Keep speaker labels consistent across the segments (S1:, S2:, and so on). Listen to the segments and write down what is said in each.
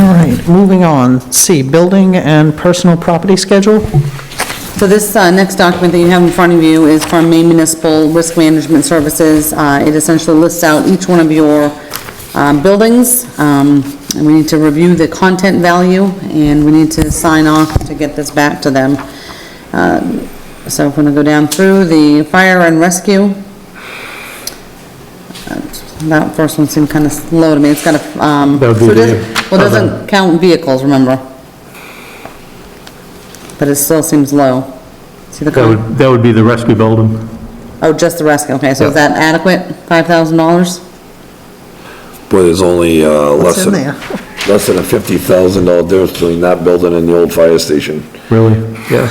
S1: All right, moving on. C, building and personal property schedule.
S2: So this uh, next document that you have in front of you is from Maine Municipal Risk Management Services. Uh, It essentially lists out each one of your uh, buildings, um, and we need to review the content value, and we need to sign off to get this back to them. Uh, So if we want to go down through the fire and rescue, Uh, that first one seemed kind of low to me, it's got a, um...
S3: That would be
S2: so it doesn't-
S3: the
S2: Well, it doesn't count vehicles, remember? But it still seems low. See the,
S3: That
S2: con-
S3: would, that would be the rescue building.
S2: oh, just the rescue, okay, so is that adequate, five thousand dollars?
S4: Boy, there's only, uh, less
S1: in
S4: than,
S1: there?
S4: less than a fifty thousand dollar difference between that building and the old fire station.
S3: Really?
S4: Yeah.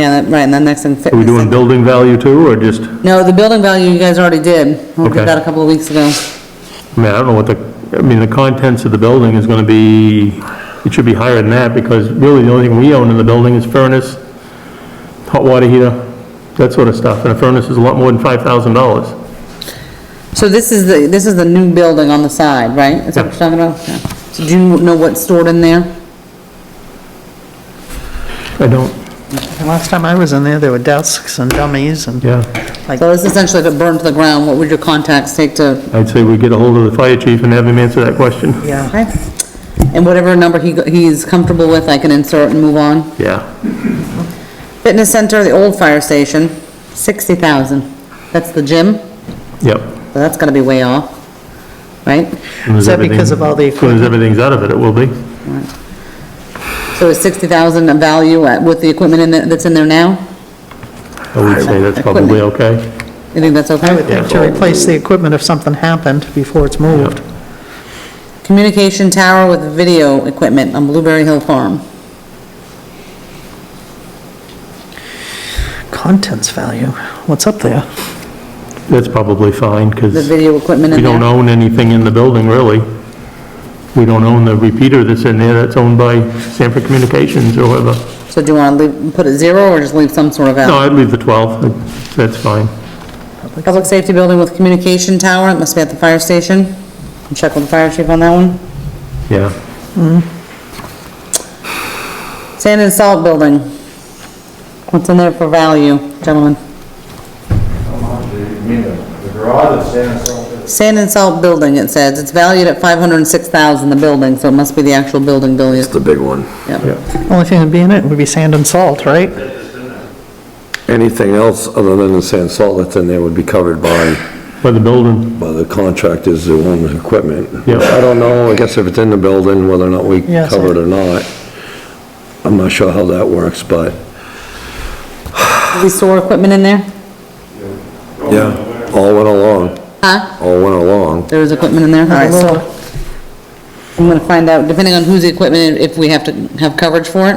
S2: Yeah, that- right, and then next in
S3: Are we
S2: fitness.
S3: doing building value too, or just, I
S2: No, the building value, you guys already did, we
S3: Okay.
S2: did that a couple of weeks ago.
S3: mean, I don't know what the, I mean, the contents of the building is gonna be, it should be higher than that, because really the only thing we own in the building is furnace, hot water heater, that sort of stuff, and a furnace is a lot more than five thousand dollars.
S2: So this is the, this is the new building on the side, right? Is that what you're talking about? Yeah. So do you know what's stored in there?
S3: I don't,
S1: The Last time I was in there, there were desks and dummies and,
S3: yeah,
S2: So this essentially, if it burned to the ground, what would your contacts take to
S3: I'd say we get a hold of the fire chief and have him answer that question.
S1: yeah.
S2: Okay. And whatever number he, he's comfortable with, I can insert and move on.
S3: Yeah,
S2: Fitness center, the old fire station, sixty thousand. That's the gym,
S3: yep.
S2: so that's gonna be way off, right?
S1: Is that because of all the
S3: As soon as
S1: equipment?
S3: everything's out of it, it will be.
S2: So is sixty thousand a value at- with the equipment in, there- that's in there now?
S3: I would say that's probably okay.
S2: You think that's
S1: I would
S2: okay?
S1: think to replace the equipment if something happened before it's moved.
S2: Communication tower with video equipment on Blueberry Hill Farm.
S1: Contents value, what's up there?
S3: That's probably fine, because...
S2: The video equipment
S3: We
S2: in
S3: don't
S2: there.
S3: own anything in the building, really. We don't own the repeater that's in there, that's owned by Sanford Communications or whoever.
S2: So do you wanna leave, put it zero or just leave some sort of
S3: No,
S2: value?
S3: I'd leave the 12, that's fine.
S2: Public safety building with communication tower, it must be at the fire station. Check with the fire chief on that one.
S3: Yeah,
S2: Sand and salt building. What's in there for value, gentlemen?
S5: The garage is standing so,
S2: Sand and salt building, it says. It's valued at five hundred and six thousand, the building, so it must be the actual building value.
S4: It's the big one.
S3: yeah.
S1: Only thing that'd be in it would be sand and salt, right?
S4: Anything else other than the sand salt that's in there would be covered by,
S3: By the building,
S4: by the contractors who own the equipment.
S3: Yeah.
S4: I don't know, I guess if it's in the building, whether or not we
S1: Yeah, so-
S4: cover it or not. I'm not sure how that works, but,
S2: We store equipment in there?
S4: yeah, all went along,
S2: Huh?
S4: all went along.
S2: There is equipment in there? All right,
S1: Lord.
S2: so I'm gonna find out, depending on whose equipment, if we have to have coverage for it.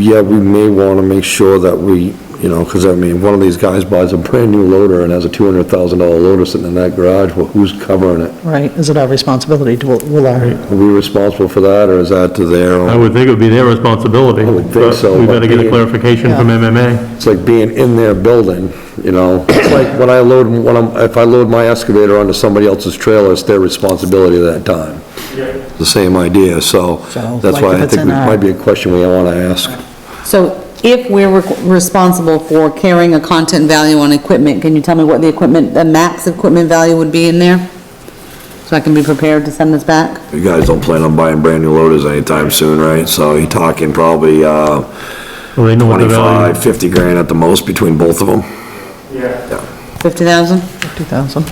S4: Yeah, we may want to make sure that we, you know, because I mean, one of these guys buys a brand-new loader and has a $200,000 loader sitting in that garage, well, who's covering it?
S1: Right, is it our responsibility? Do- Will our,
S4: Are we responsible for that, or is that to their
S3: I
S4: own?
S3: would think it would be their responsibility.
S4: I would think
S3: but
S4: so,
S3: We
S4: but
S3: better get a
S4: being-
S3: clarification from MMA.
S4: It's like being in their building, you know? It's like when I load, when I'm, if I load my excavator onto somebody else's trailer, it's their responsibility at that time. The same idea, so
S1: So, like
S4: that's
S1: if
S4: why I
S1: it's
S4: think
S1: in
S4: it
S1: our-
S4: might be a question we want to ask.
S2: So if we're rec- responsible for carrying a content value on equipment, can you tell me what the equipment, the max equipment value would be in there? So I can be prepared to send this back?
S4: You guys don't plan on buying brand-new loaders anytime soon, right? So you're talking probably, uh,
S3: Well, they know what the value,
S4: 25, 50 grand at the most between both of them.
S5: yeah.
S2: Fifty thousand?
S1: 50,000?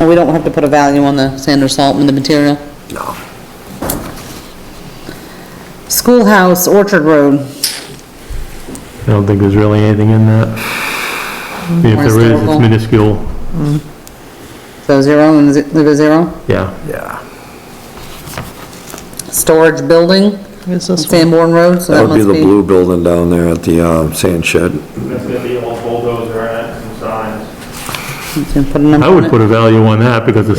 S2: And we don't have to put a value on the sand or salt and the material?
S4: No.
S2: Schoolhouse, Orchard Road,
S3: I don't think there's really anything in that. I mean, If there is,
S2: Historical.
S3: it's minuscule,
S2: so zero and zi- leave a zero.
S3: yeah.
S4: Yeah.
S2: Storage building,
S1: Is this one?
S2: Sanborn Road, so
S4: That
S2: that
S4: would be
S2: must
S4: the
S2: be.
S4: blue building down there at the, um, sand shed.
S5: That's gonna be all bulldozer and some signs.
S2: Let's Put a number
S3: I
S2: on
S3: would
S2: it.
S3: put a value on that because the